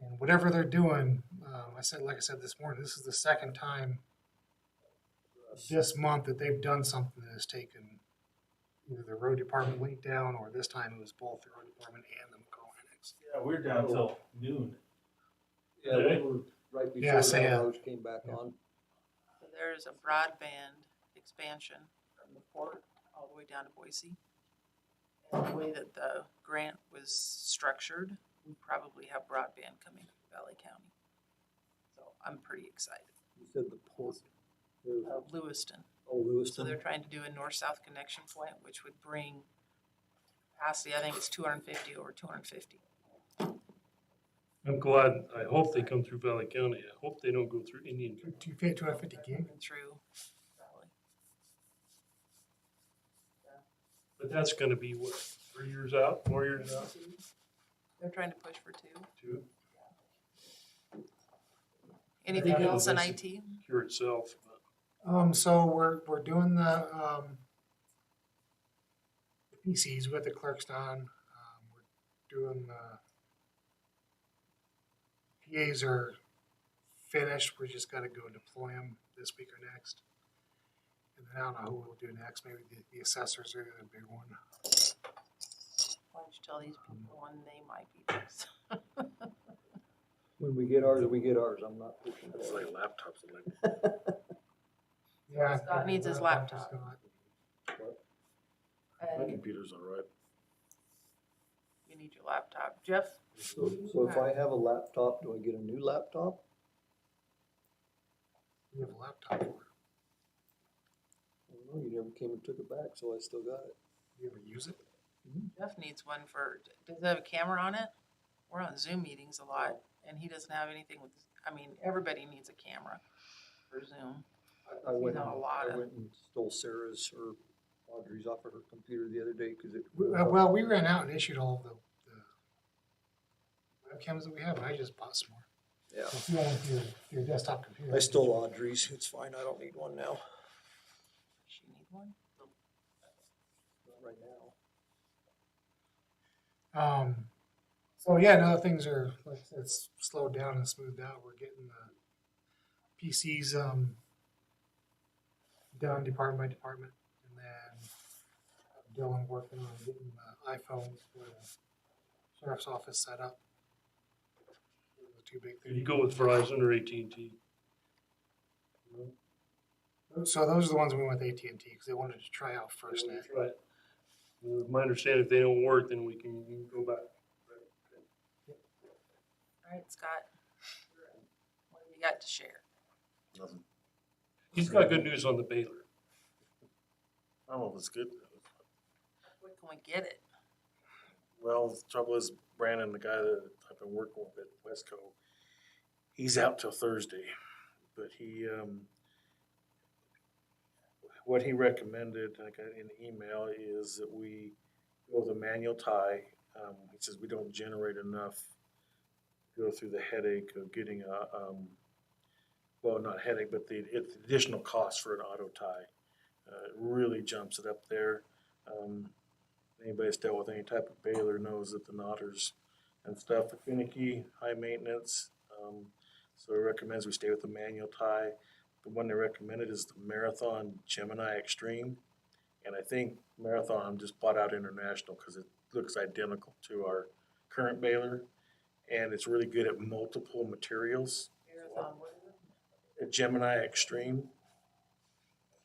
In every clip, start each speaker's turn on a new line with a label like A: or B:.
A: and whatever they're doing, um, I said, like I said this morning, this is the second time this month that they've done something that has taken either the road department link down, or this time it was both the road department and the McCall Annex.
B: Yeah, we're down till noon.
C: Yeah,
B: Did
C: they
B: it?
C: were right
A: Yeah,
C: before
A: say,
C: the
A: uh,
C: hours came back
A: yeah.
C: on.
D: So There is a broadband expansion from the port all the way down to Boise. And the way that the grant was structured, we probably have broadband coming from Valley County. So I'm pretty excited.
C: You said the port, there
D: Uh,
C: was
D: Lewiston,
C: old
D: so they're
C: Lewiston.
D: trying to do a north-south connection point, which would bring capacity, I think it's two hundred and fifty over two hundred and fifty.
E: I'm glad, I hope they come through Valley County. I hope they don't go through Indian Country.
A: Two fifty, two hundred fifty gig,
D: Through Valley.
E: But that's gonna be what, three years out, four years out,
D: They're trying to push for two.
E: to
D: Anything
A: Yeah,
D: else in
E: that's-
D: IT?
E: cure itself. but-
A: um, so we're, we're doing the, um, PCs with the clerks done, um, we're doing the PAs are finished, we just gotta go deploy them this week or next. And then I don't know who we'll do next, maybe the, the assessors are the big one.
D: Why don't you tell these people when they might be next?
C: When we get ours, we get ours. I'm not pushing
F: That's
C: for
F: like
C: it.
F: laptops, I'm like,
A: Yeah.
D: Scott needs his laptop.
F: my
D: And
F: computer's all right.
D: you need your laptop. Jeff,
C: So so if I have a laptop, do I get a new laptop?
A: We have a laptop order.
C: I don't know, you never came and took it back, so I still got it.
A: You ever use it?
D: Jeff needs one for, does it have a camera on it? We're on Zoom meetings a lot and he doesn't have anything with, I mean, everybody needs a camera for Zoom.
C: I- I
D: You
C: went,
D: know, a lot
C: I
D: of-
C: went and stole Sarah's or Audrey's off of her computer the other day because it.
A: We- uh, Well, we ran out and issued all the, the webcams that we have, and I just bought some more.
C: Yeah,
A: If you want your, your desktop computer.
C: I stole Audrey's. It's fine. I don't need one now.
D: Does She need one?
C: Not right now.
A: Um, so yeah, now things are, like, I said, it's slowed down and smoothed out. We're getting the PCs, um, done department by department. And then Dylan working on getting the iPhones for the sheriff's office set up. Those are the Two big
E: Do
A: things.
E: you go with Verizon or AT&T?
A: So those are the ones we went with AT&T because they wanted to try out FirstNet.
E: Right. Well, My understanding, if they don't work, then we can go back.
D: All right, Scott. What do you got to share?
F: Nothing.
E: He's got good news on the Baylor.
F: I don't know if it's Oh, good.
D: Where can we get it?
F: Well, the trouble is Brandon, the guy that I've been working with at Westco, he's out till Thursday, but he, um, what he recommended, I got in the email, is that we go with a manual tie. Um, he says we don't generate enough, to go through the headache of getting a, um, well, not headache, but the it- additional cost for an auto tie. Uh, it really jumps it up there. Um, anybody that's dealt with any type of baler knows that the knotters and stuff are finicky, high maintenance. Um, so it recommends we stay with the manual tie. The one they recommended is the Marathon Gemini Extreme. And I think Marathon just bought out International because it looks identical to our current baler. And it's really good at multiple materials.
D: Marathon, what is it?
F: At Gemini Extreme.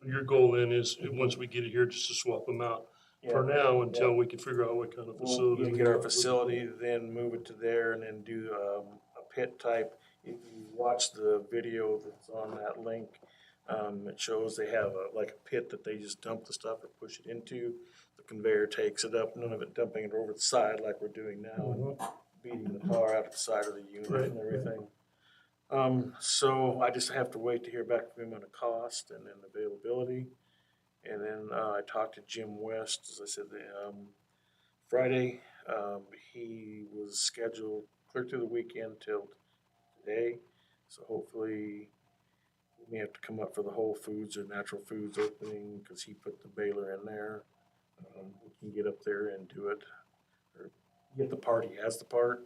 E: Your goal then is, once we get it here, just to swap them out for now until we can figure out what kind of
F: We'll
E: facility.
F: we'll
E: we
F: get our
E: want.
F: facility, then move it to there and then do, um, a pit type. If you watch the video that's on that link, um, it shows they have a, like a pit that they just dump the stuff and push it into. The conveyor takes it up, none of it dumping it over the side like we're doing now and beating the tar out of the side of the
E: Right.
F: unit and everything. Um, so I just have to wait to hear back from him on the cost and then availability. And then, uh, I talked to Jim West, as I said, the, um, Friday. Um, he was scheduled clear through the weekend till today. So hopefully we may have to come up for the Whole Foods or Natural Foods opening because he put the baler in there. Um, we can get up there and do it or get the part. He has the part.